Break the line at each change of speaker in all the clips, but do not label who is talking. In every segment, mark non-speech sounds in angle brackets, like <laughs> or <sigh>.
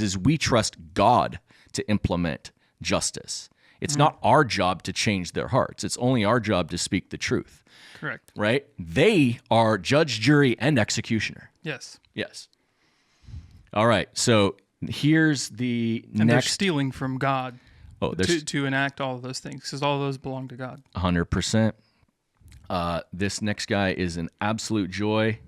is we trust God to implement justice. It's not our job to change their hearts. It's only our job to speak the truth,
Correct.
right? They are judge, jury, and executioner.
Yes.
Yes. All right. So here's the
And they're
next.
stealing from God
oh, there's
to, to enact all of those things because all those belong to God.
100%. Uh, this next guy is an absolute joy.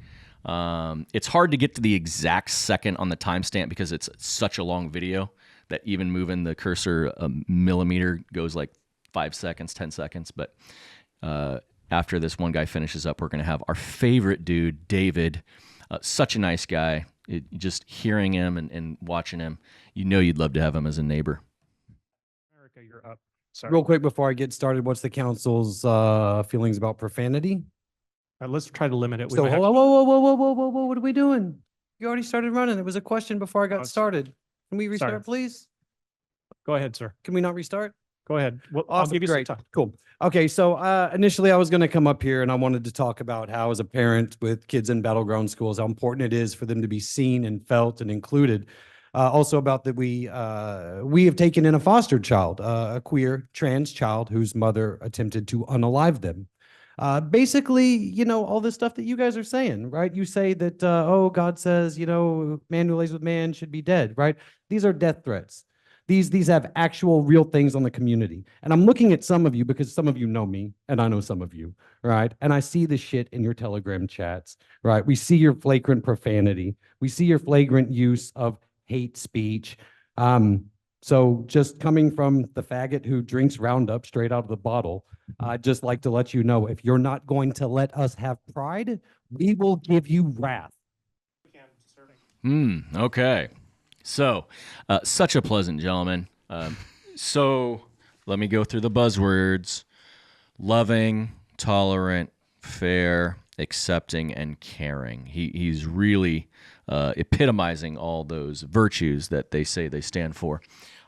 Um, it's hard to get to the exact second on the timestamp because it's such a long video that even moving the cursor a millimeter goes like five seconds, 10 seconds. But uh, after this one guy finishes up, we're going to have our favorite dude, David. Uh, such a nice guy. It, just hearing him and, and watching him, you know you'd love to have him as a neighbor.
America, you're up. Sorry.
Real quick before I get started, what's the council's uh, feelings about profanity?
Uh, let's try to limit it. We
So,
might
whoa,
have-
whoa, whoa, whoa, whoa, whoa, whoa, whoa, what are we doing? You already started running. It was a question before I
Oh,
got
s-
started. Can we
sorry.
restart, please?
Go ahead, sir.
Can we not restart?
Go ahead. Well, I'll
Awesome,
give you some
great.
time.
Cool. Okay, so uh, initially I was going to come up here and I wanted to talk about how, as a parent with kids in battleground schools, how important it is for them to be seen and felt and included. Uh, also about that we uh, we have taken in a foster child, uh, a queer trans child whose mother attempted to unalive them. Uh, basically, you know all this stuff that you guys are saying, right? You say that uh, oh God says you know man who lays with man should be dead, right? These are death threats these these have actual real things on the community and i'm looking at some of you because some of you know me and i know some of you right and i see the shit in your telegram chats right we see your flagrant profanity we see your flagrant use of hate speech um so just coming from the faggot who drinks roundup straight out of the bottle i'd just like to let you know if you're not going to let us have pride we will give you wrath
Hmm. Okay. So, uh, such a pleasant gentleman. Um, so, let me go through the buzzwords: loving, tolerant, fair, accepting, and caring. He he's really uh, epitomizing all those virtues that they say they stand for.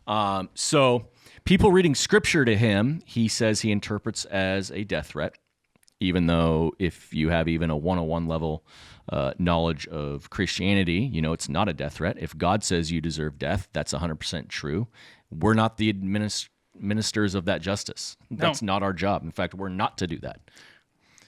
Um, so, people reading scripture to him, he says he interprets as a death threat even though if you have even a 101 level uh, knowledge of Christianity, you know, it's not a death threat. If God says you deserve death, that's 100% true. We're not the adminis- ministers of that justice. That's not our job. In fact, we're not to do that.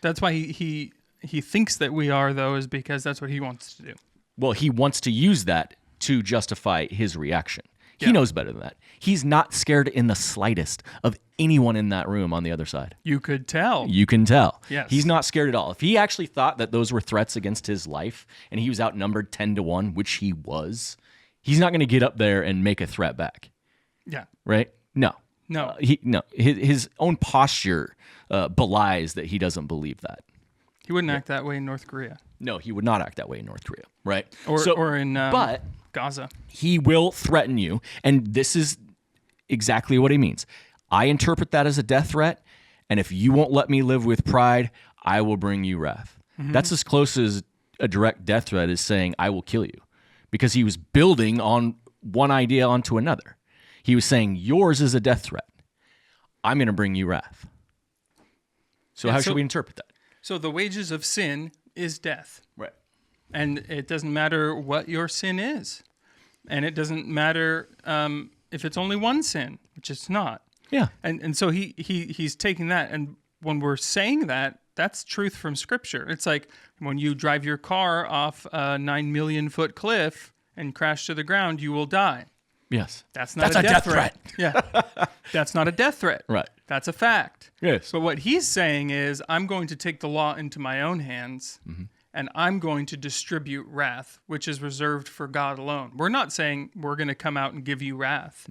That's why he, he he thinks that we are though is because that's what he wants to do.
Well, he wants to use that to justify his reaction. He
Yeah.
knows better than that. He's not scared in the slightest of anyone in that room on the other side.
You could tell.
You can tell.
Yes.
He's not scared at all. If he actually thought that those were threats against his life and he was outnumbered 10 to 1, which he was, he's not going to get up there and make a threat back,
Yeah.
right? No.
No.
Uh, he no his, his own posture uh, belies that he doesn't believe that.
He wouldn't act that way in North Korea
No, he would not act that way in North Korea, right?
or
So-
or in um,
but
Gaza.
he will threaten you. And this is exactly what he means. I interpret that as a death threat. And if you won't let me live with pride, I will bring you wrath. That's as close as a direct death threat is saying, I will kill you. Because he was building on one idea onto another. He was saying, Yours is a death threat. I'm going to bring you wrath. So,
Yeah,
how
so-
should we interpret that?
So the wages of sin is death.
Right.
and it doesn't matter what your sin is, and it doesn't matter um, if it's only one sin, which it's not.
Yeah.
And and so he he he's taking that, and when we're saying that, that's truth from Scripture. It's like when you drive your car off a nine million foot cliff and crash to the ground, you will die.
Yes.
That's not
That's
a,
a death
death, threat. <laughs> yeah, that's not a death threat.
Right.
That's a fact.
Yes.
But what he's saying is, I'm going to take the law into my own hands, and I'm going to distribute wrath, which is reserved for God alone. We're not saying we're going to come out and give you wrath.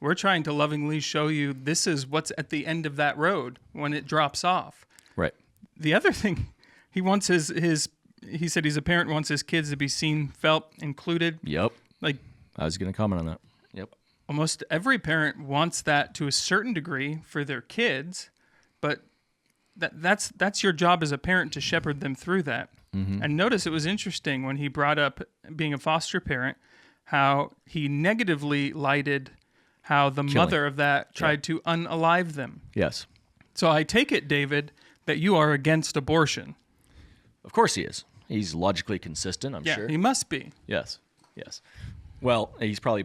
We're trying to lovingly show you this is what's at the end of that road when it drops off
Right.
the other <laughs> thing he wants his his he said he's a parent wants his kids to be seen felt included
Yep.
like
I was going to comment on that. Yep.
almost every parent wants that to a certain degree for their kids but that that's that's your job as a parent to shepherd them through that and notice it was interesting when he brought up being a foster parent how he negatively lighted how the mother of that tried to unalive them
Yes.
so i take it david that you are against abortion
Of course he is. He's logically consistent, I'm
yeah
sure.
he must be
Yes. Yes. Well, he's probably